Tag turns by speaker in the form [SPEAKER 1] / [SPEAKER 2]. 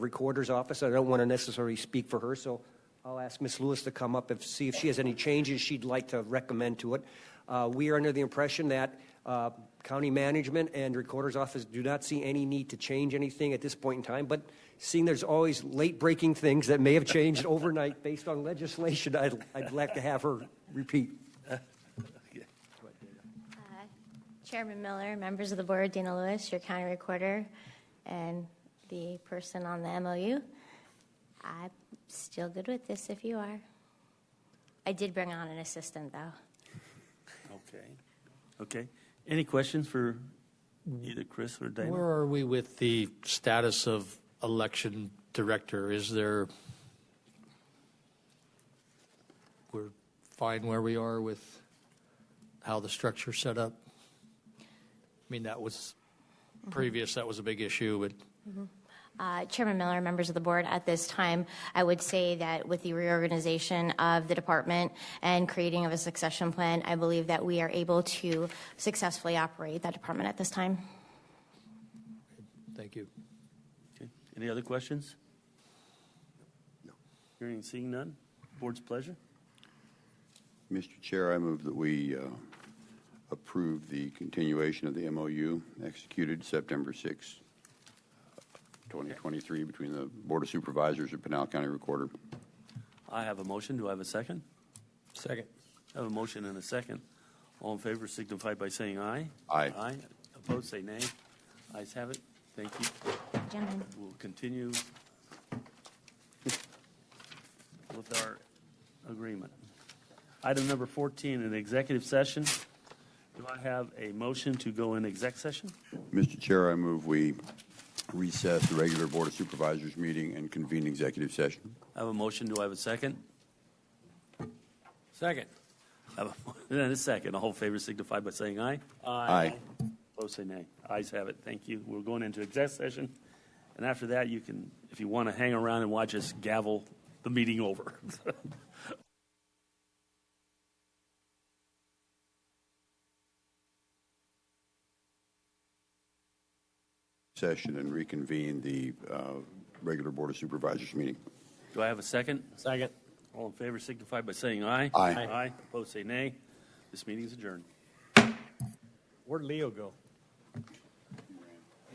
[SPEAKER 1] Recorder's Office. I don't want to necessarily speak for her, so I'll ask Ms. Lewis to come up and see if she has any changes she'd like to recommend to it. Uh, We are under the impression that uh, county management and Recorder's Office do not see any need to change anything at this point in time, but seeing there's always late-breaking things that may have changed overnight based on legislation, I'd I'd like to have her repeat.
[SPEAKER 2] Chairman Miller, members of the board, Dana Lewis, your county recorder, and the person on the MOU. I'm still good with this if you are. I did bring on an assistant, though.
[SPEAKER 3] Okay. Okay. Any questions for either Chris or
[SPEAKER 4] Where
[SPEAKER 3] Dana?
[SPEAKER 4] are we with the status of election director? Is there, we're fine where we are with how the structure's set up? I mean, that was previous, that was a big issue, but
[SPEAKER 2] Uh, Chairman Miller, members of the board, at this time, I would say that with the reorganization of the department and creating of a succession plan, I believe that we are able to successfully operate that department at this time.
[SPEAKER 4] thank you.
[SPEAKER 3] Okay. Any other questions? No. Hearing and seeing none? Board's pleasure?
[SPEAKER 5] Mr. Chair, I move that we uh, approve the continuation of the MOU executed September 6, 2023, between the Board of Supervisors and Pinal County Recorder.
[SPEAKER 3] I have a motion. Do I have a second?
[SPEAKER 4] Second.
[SPEAKER 3] I have a motion and a second. All in favor signify by saying aye.
[SPEAKER 5] Aye.
[SPEAKER 3] Aye. Opposed, say nay. Ayes have it. Thank you.
[SPEAKER 2] Gentlemen.
[SPEAKER 3] We'll continue with our agreement. Item number 14, an executive session. Do I have a motion to go in exec session?
[SPEAKER 5] Mr. Chair, I move we recess the regular Board of Supervisors meeting and convene executive session.
[SPEAKER 3] I have a motion. Do I have a second?
[SPEAKER 4] Second.
[SPEAKER 3] I have a mo- And a second. All in favor signify by saying aye.
[SPEAKER 5] Aye.
[SPEAKER 3] Opposed, say nay. Ayes have it. Thank you. We're going into exec session. And after that, you can, if you want to hang around and watch us gavel the meeting over.
[SPEAKER 5] Session and reconvene the uh, regular Board of Supervisors meeting.
[SPEAKER 3] Do I have a second?
[SPEAKER 4] Second.
[SPEAKER 3] All in favor signify by saying aye.
[SPEAKER 5] Aye. Aye.
[SPEAKER 3] Aye. Opposed, say nay. This meeting is adjourned.
[SPEAKER 1] Where'd Leo go?